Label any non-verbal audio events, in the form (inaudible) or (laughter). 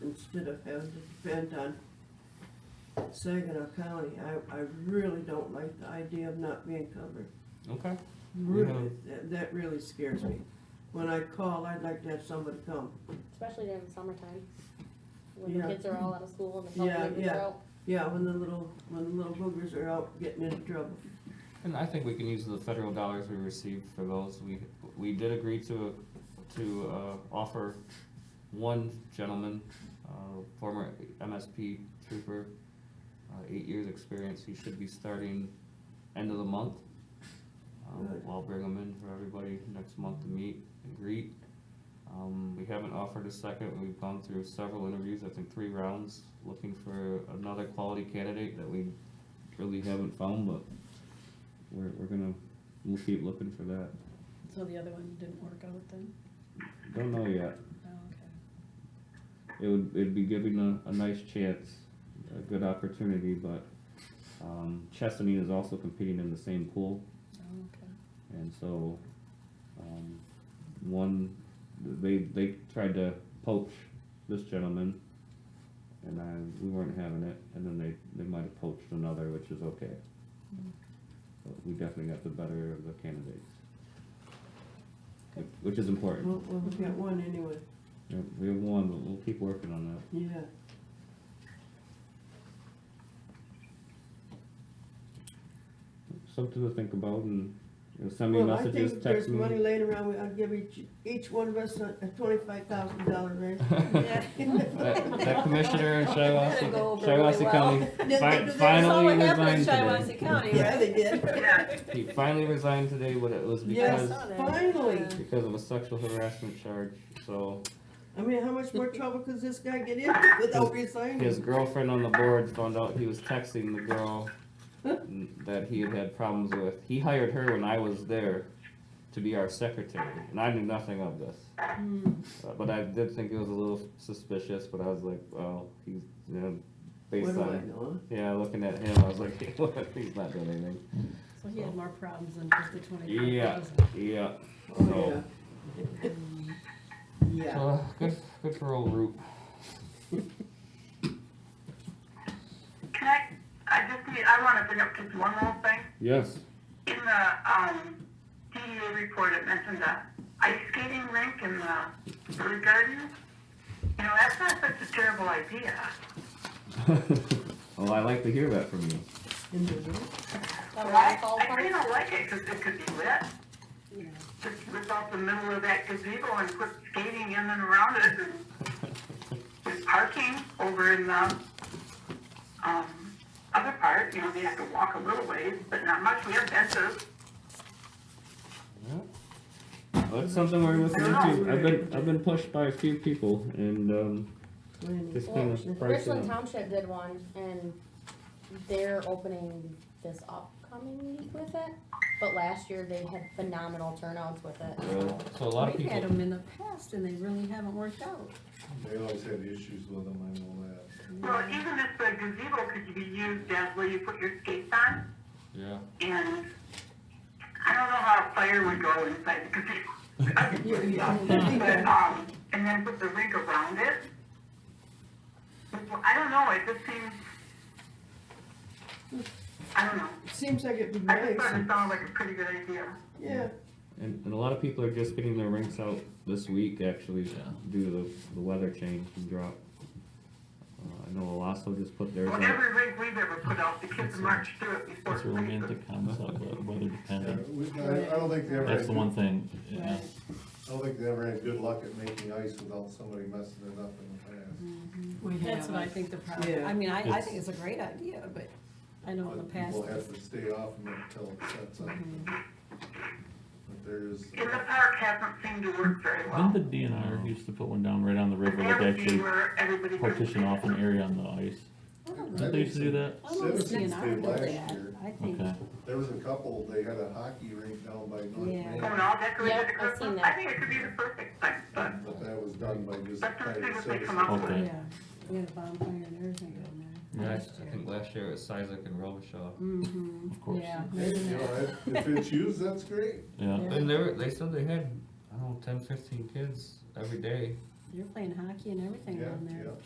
instead of having to depend on Saginaw County. I, I really don't like the idea of not being covered. Okay. Really, that, that really scares me. When I call, I'd like to have somebody come. especially during the summertime. When the Yeah. kids are all out of school and the Yeah, public is yeah. out. Yeah, when the little, when the little boogers are out getting into trouble. And I think we can use the federal dollars we received for those. We, we did agree to, to, uh, offer one gentleman, uh, former MSP trooper, uh, eight years experience. He should be starting end of the month. Um, Good. I'll bring him in for everybody next month to meet and greet. Um, we haven't offered a second. We've gone through several interviews, I think three rounds, looking for another quality candidate that we really haven't found, but we're, we're gonna, we'll keep looking for that. So the other one didn't work out then? Don't know yet. Oh, okay. It would, it'd be giving a, a nice chance, a good opportunity, but, um, Chesaning is also competing in the same pool, Oh, okay. and so, um, one, they, they tried to poach this gentleman, and I, we weren't having it, and then they, they might have poached another, which is okay. But we definitely got the better of the candidates. Which- Which is important. Well, well, we got one anyway, Yeah, we have one, but we'll keep working on that. yeah. Something to think about and, you know, send me Well, I think messages, if text there's me. money (laughs) laying around, we- I'll give each, each one of us a a twenty-five thousand dollar raise. That (laughs) that commissioner in That'll Shiawassee, go over Shiawassee really County, they fi- do that? finally That's all what resigned happened in today. Shiawassee County, Yeah, right? they (laughs) did. He finally resigned today, but it was Yes. because, Finally. because of a sexual harassment charge, so. I mean, how (laughs) much more trouble could this guy get in without His resigning? girlfriend on the board found out he was texting the (laughs) girl that he had had problems with. He hired her when I was there to be our secretary, and I knew nothing of this. Uh, But I did think it was a little suspicious, but I was like, well, he's, you know, What based do I on, know? yeah, looking at him, I was like, (laughs) he's not doing anything. So he had more problems than just the Yeah. twenty-five Yeah, Oh, so, yeah. (laughs) Yeah, so, Uh, good, good for old Roop. Can I, I just need, I wanna bring up just one little thing. (laughs) Yes. In the, um, DDA report, it mentioned the ice skating rink in the Blue Garden. You know, that's not such a terrible idea. Well, Oh, I like to hear that from you. in the room. That I, waterfall I park. kinda like it, cause it could be lit. thousand. Yeah. Just rip out the middle of that gazebo and put skating in and around it and there's parking over in the, um, other part, you know, they have to walk a little ways, but not much. We have benches. Yeah. Well, that's something we're looking into. I've been, I've been pushed by a few people and, um, When- just kind of Well, Richland pricing. Township did one and they're opening this upcoming week with it. But last year they had phenomenal turnouts with it. So a lot of We've had people, them in the past and they really haven't worked out. They always have issues with them, I know that. Well, even if the gazebo could be used as where you put your skates on, yeah. and I don't know how a fire would go inside the gazebo. (laughs) You- you- But, (laughs) um, and then put the rink around it. I don't know, it just seems, I don't know. Seems like it'd be I just nice, thought it sounded like a pretty good idea. yeah. And, and a lot of people are just getting their rinks out this week, actually, due to the, the weather change and drop. Uh, I know Alasso just put theirs Well, out. every rink we've ever put out, the kids march through it before. It's a romantic concept, but weather Yeah, dependent. we- I I don't think they ever, That's had the good- one I thing, yeah. Right. don't think they ever had good luck at making ice without somebody messing it up in the Mm-hmm. past. We That's what I think the problem, Yeah. I mean, I, I It's- think it's a great idea, but I know in the But past, Mm-hmm. people have to stay off of it until it sets up. But there's, And the park hasn't seemed to work very well. Didn't the DNR used to put one down right on the river That that would be actually where everybody. could- partition off an area on the ice? I don't know, Didn't they used to do that? I don't Citizens see an did art last that, year. I think. Okay. there was a couple, they had a hockey rink down by North Yeah. Main, And all decorated Yep, I've Christmas. seen that. I think it could be the perfect thing, but but that was done by just That's what private they come up citizens. Okay. Yeah, we had a bonfire and everything down Yeah, there. I last year. think last year it was Sizik and Robichaud. Mhm. Of course. Yeah. Hey, you know, if- If it's used, that's great. Yeah, And they were, they said they had, I don't know, ten, fifteen kids every day. You're playing hockey and everything Yeah, down there. yeah.